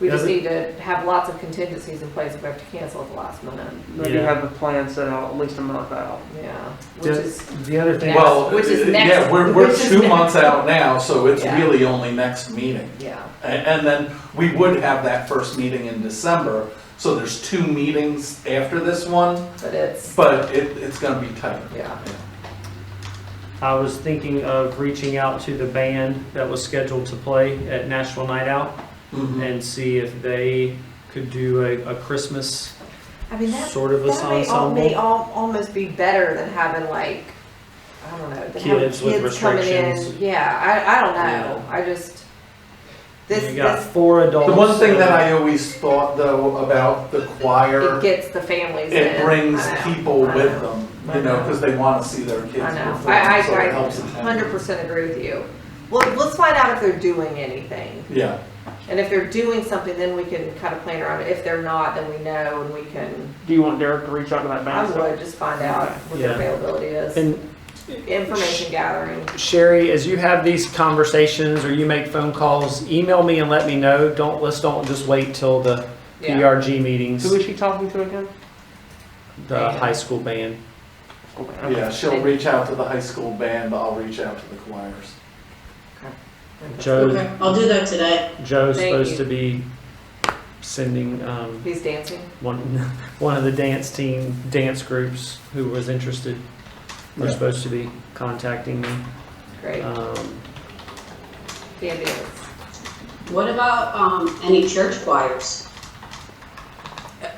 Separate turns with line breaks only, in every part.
We just
Doesn't-
need to have lots of contingencies in place if we have to cancel at the last minute,
Maybe
Yeah.
have a plan set out at least a month out.
yeah. Which
Does-
is,
The other thing,
Well-
well,
which is
uh,
next-
Yeah, we're, we're
which is
two
next.
months out now, so it's
Yeah.
really only next meeting.
yeah,
A- And, then we would have that first meeting in December, so there's two meetings after this one,
but it's,
but it, it's gonna be tight.
yeah,
I was thinking of reaching out to the band that was scheduled to play at National Night Out
Mm-hmm.
Mhm.
and see if they could do a, a Christmas
I mean, that,
sort of a
that may, al- may
ensemble.
al- almost be better than having like, I don't know, than having
Kids with
kids coming in,
restrictions.
yeah, I, I don't know, I just, this,
You got
this,
four adults.
The one thing that I always thought though about the choir,
it gets the families in.
it brings
I know,
people
I know.
with them,
I
you know,
know.
cause they wanna see their kids
I know.
perform, so
I- I- I
it helps.
Hundred percent agree with you. Well, let's find out if they're doing anything,
Yeah,
and if they're doing something, then we can kind of plan around it. If they're not, then we know and we can,
Do you want Derek to reach out to that
I
band?
would just find out what their
Yeah.
availability is.
And
Information gathering,
Sherry, as you have these conversations or you make phone calls, email me and let me know. Don't, let's don't just wait till the
yeah.
PRG meetings,
Who is she talking to again?
the high school band.
Okay.
yeah, she'll reach out to the high school band, but I'll reach out to the choirs.
Joe,
Okay,
Um,
I'll do that today.
Joe's
Thank
supposed
you.
to be sending, um,
He's dancing.
one, one of the dance team, dance groups who was interested. Were
Yeah.
supposed to be contacting me.
Great.
Um,
Yeah, it is.
What about, um, any church choirs?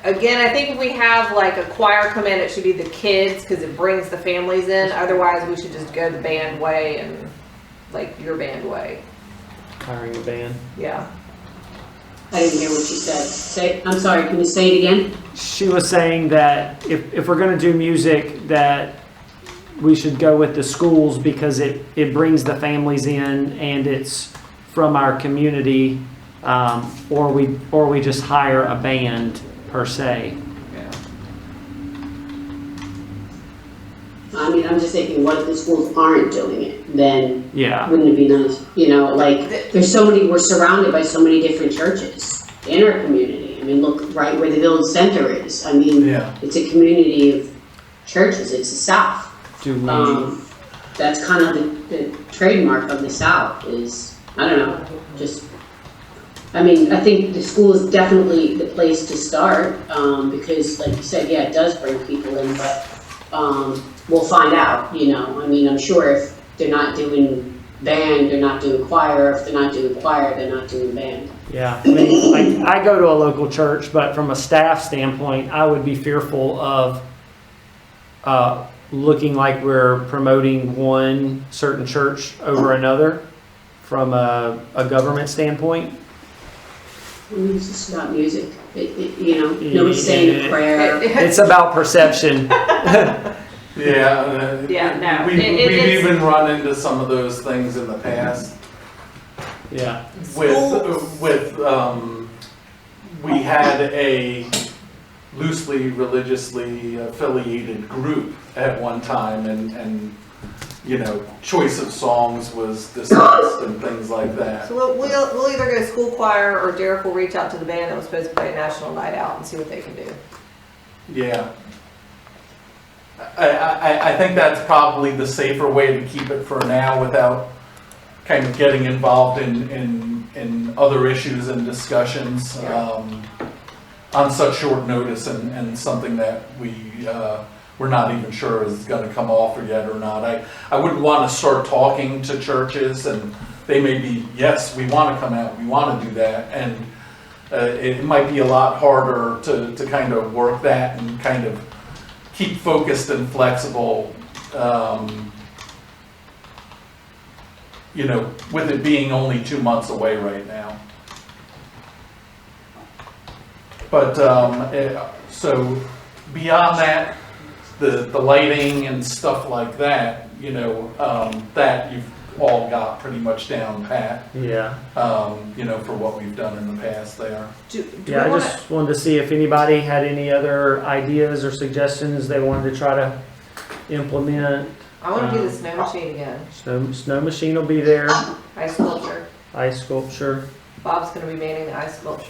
Again, I think if we have like a choir come in, it should be the kids because it brings the families in. Otherwise, we should just go the band way and like your band way.
hiring a band.
Yeah.
I didn't hear what you said. Say, I'm sorry, can you say it again?
She was saying that if, if we're gonna do music, that we should go with the schools because it, it brings the families in and it's from our community. Um, or we, or we just hire a band per se.
I mean, I'm just thinking, what if the schools aren't doing it? Then
Yeah,
wouldn't it be nice, you know, like, there's so many, we're surrounded by so many different churches in our community. I mean, look right where the village center is. I mean,
Yeah,
it's a community of churches. It's the South.
do we,
Um, that's kind of the, the trademark of the South is, I don't know, just, I mean, I think the school is definitely the place to start, um, because like you said, yeah, it does bring people in, but, um, we'll find out, you know, I mean, I'm sure if they're not doing band, they're not doing choir, if they're not doing choir, they're not doing band.
yeah. I mean, like, I go to a local church, but from a staff standpoint, I would be fearful of, uh, looking like we're promoting one certain church over another from a, a government standpoint.
I mean, It's just about music, it, it, you know, nobody's saying a prayer.
It's about perception.
yeah. uh,
Yeah, no,
We've,
it- it-
we've
it's-
even run into some of those things in the past
Yeah.
with, with, um, we had a loosely religiously affiliated group at one time and, and, you know, choice of songs was discussed and things like that.
So we'll, we'll, we'll either go school choir or Derek will reach out to the band that was supposed to play a national night out and see what they can do.
Yeah. I, I, I- I think that's probably the safer way to keep it for now without kind of getting involved in, in, in other issues and discussions,
Yeah.
um, on such short notice and, and something that we, uh, we're not even sure is gonna come off yet or not. I, I wouldn't wanna start talking to churches and they may be, yes, we wanna come out, we wanna do that, and uh, it might be a lot harder to, to kind of work that and kind of keep focused and flexible. um, You know, with it being only two months away right now. But, um, eh, so beyond that, the, the lighting and stuff like that, you know, um, that you've all got pretty much down pat,
Yeah.
um, you know, for what we've done in the past there.
Do, do
Yeah,
we
I
want
just wanted to see if anybody had any other ideas or suggestions they wanted to try to implement.
I want to do the
um,
snow machine again.
Snow, snow machine will be there,
Ice sculpture.
ice sculpture.
Bob's going to be manning the ice sculpture.